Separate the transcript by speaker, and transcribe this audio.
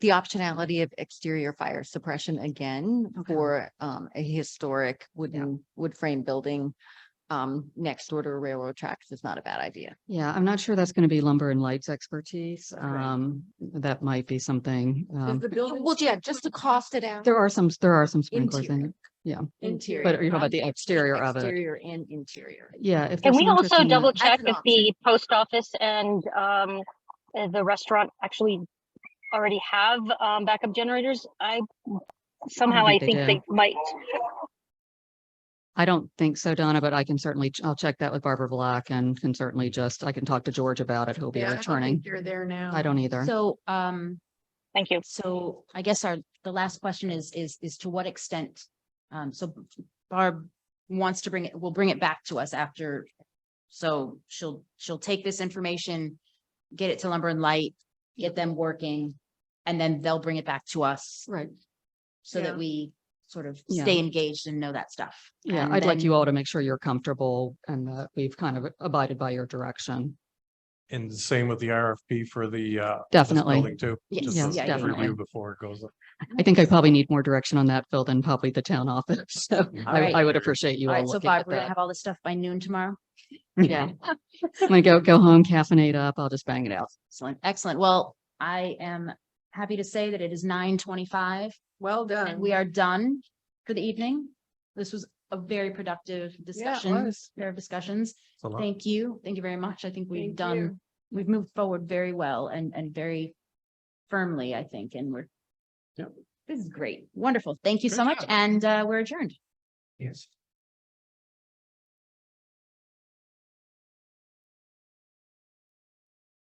Speaker 1: the optionality of exterior fire suppression again
Speaker 2: Okay.
Speaker 1: for um a historic wooden wood frame building. Um, next door to railroad tracks is not a bad idea.
Speaker 2: Yeah, I'm not sure that's going to be lumber and lights expertise.
Speaker 3: Okay.
Speaker 2: Um, that might be something. Um,
Speaker 1: Well, yeah, just to cost it out.
Speaker 2: there are some, there are some sprinklers in
Speaker 1: Interior.
Speaker 2: it. Yeah,
Speaker 1: Interior.
Speaker 2: but you know about the
Speaker 1: not
Speaker 2: exterior of it.
Speaker 1: Exterior and interior.
Speaker 2: Yeah. if
Speaker 4: Can
Speaker 2: there's
Speaker 4: we
Speaker 2: some
Speaker 4: also
Speaker 2: interesting-
Speaker 4: double
Speaker 1: That's
Speaker 4: check
Speaker 1: an
Speaker 4: if the post office and um uh, the restaurant actually already have um backup generators? I somehow I
Speaker 2: think they
Speaker 4: think they might.
Speaker 2: I don't think so, Donna, but I can certainly, ch- I'll check that with Barbara Black and can certainly just, I can talk to George about it. He'll be
Speaker 3: Yeah, I don't
Speaker 2: returning.
Speaker 3: think You're there now.
Speaker 2: I don't either.
Speaker 5: So, um,
Speaker 4: Thank you.
Speaker 5: so I guess our, the last question is, is, is to what extent? Um, so Barb wants to bring it, will bring it back to us after. So she'll, she'll take this information, get it to Lumber and Light, get them working, and then they'll bring it back to us
Speaker 2: Right.
Speaker 5: so
Speaker 3: Yeah.
Speaker 5: that we sort of
Speaker 2: Yeah.
Speaker 5: stay engaged and know that stuff.
Speaker 2: Yeah,
Speaker 5: And
Speaker 2: I'd like
Speaker 5: then-
Speaker 2: you all to make sure you're comfortable and that we've kind of abided by your direction.
Speaker 6: And the same with the RFP for the uh. this
Speaker 2: Definitely.
Speaker 6: Building too.
Speaker 5: Yes,
Speaker 6: just
Speaker 2: yes,
Speaker 6: as a
Speaker 2: definitely.
Speaker 6: review Before it goes up.
Speaker 2: I think I probably need more direction on that, Phil, than probably the town office. So I,
Speaker 5: right.
Speaker 2: I would appreciate you
Speaker 5: All
Speaker 2: all
Speaker 5: right, so
Speaker 2: looking
Speaker 5: Barb,
Speaker 2: at
Speaker 5: we're gonna
Speaker 2: that.
Speaker 5: have all this stuff by noon tomorrow.
Speaker 2: Yeah. I'm gonna go, go home, caffeinate up. I'll just bang it out.
Speaker 5: Excellent, excellent. Well, I am happy to say that it is nine twenty-five.
Speaker 3: Well
Speaker 5: And
Speaker 3: done.
Speaker 5: we are done for the evening. This was a very productive discussion,
Speaker 3: was.
Speaker 5: pair of discussions.
Speaker 6: It's a lot.
Speaker 5: Thank you. Thank you very much. I think we've
Speaker 3: Thank
Speaker 5: done,
Speaker 3: you.
Speaker 5: we've moved forward very well and, and very firmly, I think, and we're
Speaker 6: Yep.
Speaker 5: this is great. Wonderful. Thank you so
Speaker 6: Good
Speaker 5: much.
Speaker 6: job.
Speaker 5: And, uh, we're adjourned.
Speaker 6: Yes.